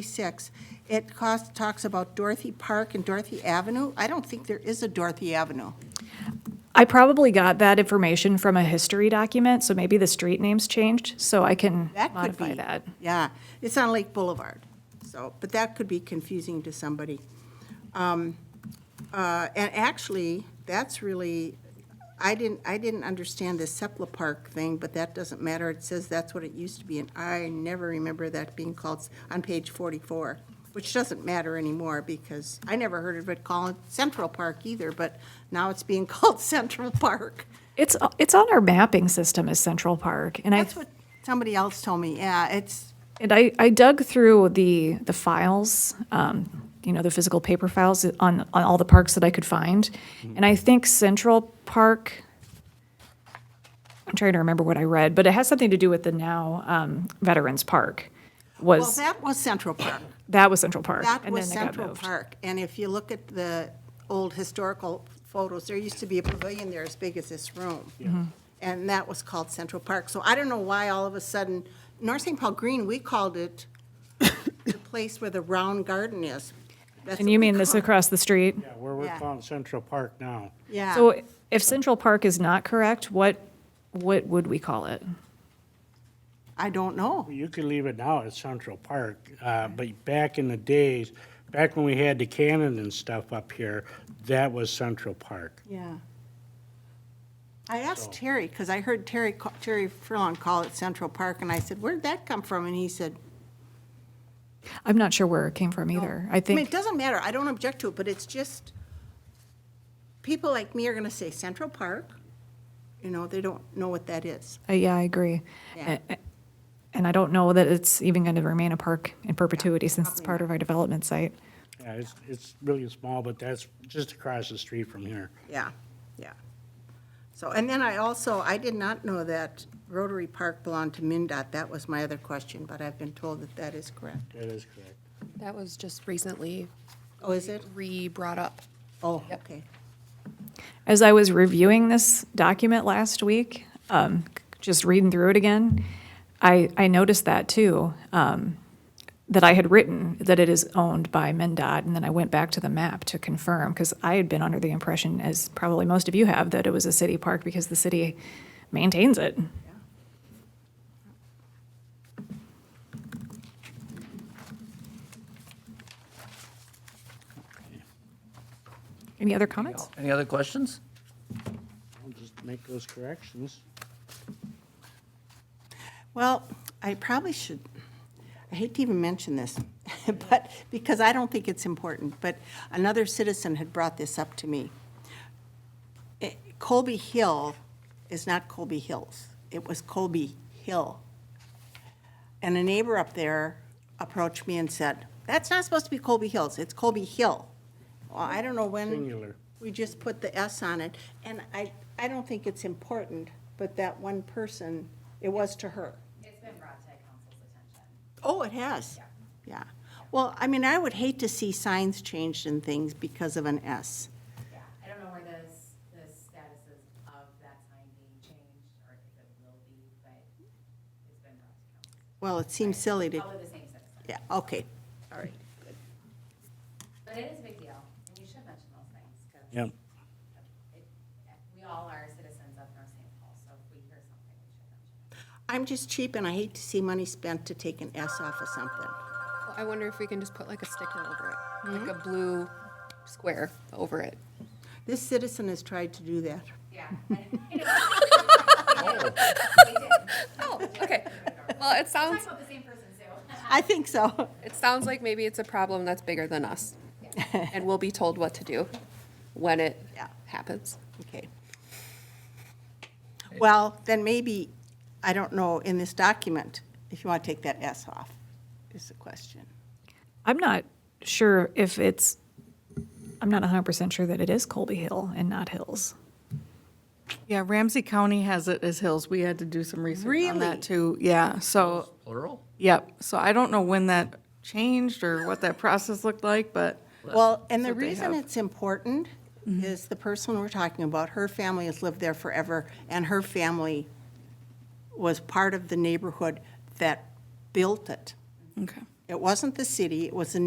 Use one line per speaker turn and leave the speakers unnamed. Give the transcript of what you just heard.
36, it cost, talks about Dorothy Park and Dorothy Avenue. I don't think there is a Dorothy Avenue.
I probably got that information from a history document, so maybe the street names changed, so I can
That could
modify
be.
that.
Yeah, it's on Lake Boulevard, so, but that could be confusing to somebody. Um, uh, And actually, that's really, I didn't, I didn't understand this Sepulpa Park thing, but that doesn't matter. It says that's what it used to be, and I never remember that being called, on page 44, which doesn't matter anymore, because I never heard of it called Central Park either, but now it's being called Central Park.
It's, it's on our mapping system as Central Park, and I,
That's what somebody else told me, yeah, it's,
and I, I dug through the, the files, um, you know, the physical paper files on, on all the parks that I could find, and I think Central Park, I'm trying to remember what I read, but it has something to do with the now um, Veterans Park,
well,
was,
that was Central Park.
that was Central Park,
That
and then
was
it got
Central
moved.
Park, and if you look at the old historical photos, there used to be a pavilion there as big as this room. And that was called Central Park, so I don't know why all of a sudden, North St. Paul Green, we called it the place where the round garden is. That's
And
what
you
we
mean this
call-
across the street?
Yeah, where we're
Yeah.
calling Central Park now.
Yeah.
So if Central Park is not correct, what, what would we call it?
I don't know.
You could leave it now at Central Park, uh, but back in the days, back when we had the cannon and stuff up here, that was Central Park.
Yeah. I asked Terry, because I heard Terry, ca- Terry Furlong call it Central Park, and I said, where'd that come from? And he said,
I'm not sure where it came from either. I
I mean, it
think,
doesn't matter, I don't object to it, but it's just, people like me are gonna say Central Park, you know, they don't know what that is.
uh, yeah, I agree.
Yeah.
A- a- And I don't know that it's even going to remain a park in perpetuity since it's part of our development site.
Yeah, it's, it's really small, but that's just across the street from here.
Yeah, yeah. So, and then I also, I did not know that Rotary Park belonged to MinDOT, that was my other question, but I've been told that that is correct.
That is correct.
That was just recently
Oh, is it?
re-brought up.
Oh,
Yep.
okay.
As I was reviewing this document last week, um, c- just reading through it again, I, I noticed that too, um, that I had written that it is owned by MnDOT, and then I went back to the map to confirm, because I had been under the impression, as probably most of you have, that it was a city park because the city maintains it. Any other comments?
Any other questions?
I'll just make those corrections.
Well, I probably should, I hate to even mention this, but, because I don't think it's important, but another citizen had brought this up to me. Eh, Colby Hill is not Colby Hills, it was Colby Hill. And a neighbor up there approached me and said, that's not supposed to be Colby Hills, it's Colby Hill. Well, I don't know when.
Singular.
We just put the S on it, and I, I don't think it's important, but that one person, it was to her.
It's been brought to council's attention.
Oh, it has? Yeah. Well, I mean, I would hate to see signs changed and things because of an S.
Yeah, I don't know where this, the status is of that sign being changed or if it will be, but it's been brought to council.
Well, it seems silly to,
All of the same citizen.
yeah, okay, all right.
But it is a big deal and you should mention those things because
Yep.
we all are citizens of North St. Paul. So if we hear something, we should mention it.
I'm just cheap, and I hate to see money spent to take an S off of something.
Well, I wonder if we can just put like a sticker over it, like a blue square over it.
This citizen has tried to do that.
Yeah. and- They did.
Oh, okay. Well, it
Talk
sounds,
about the same person too.
I think so.
it sounds like maybe it's a problem that's bigger than us. And we'll be told what to do when it
Yeah.
happens.
Okay. Well, then maybe, I don't know, in this document, if you want to take that S off, is the question.
I'm not sure if it's, I'm not 100% sure that it is Colby Hill and not Hills.
Yeah, Ramsey County has it as hills. We had to do some research on
Really?
that too. Yeah, so,
Plural?
yep. So I don't know when that changed or what that process looked like, but
Well, and the
what they
reason
have. Mm-hmm.
it's important is the person we're talking about, her family has lived there forever, and her family was part of the neighborhood that built it.
okay.
It wasn't the city, it was the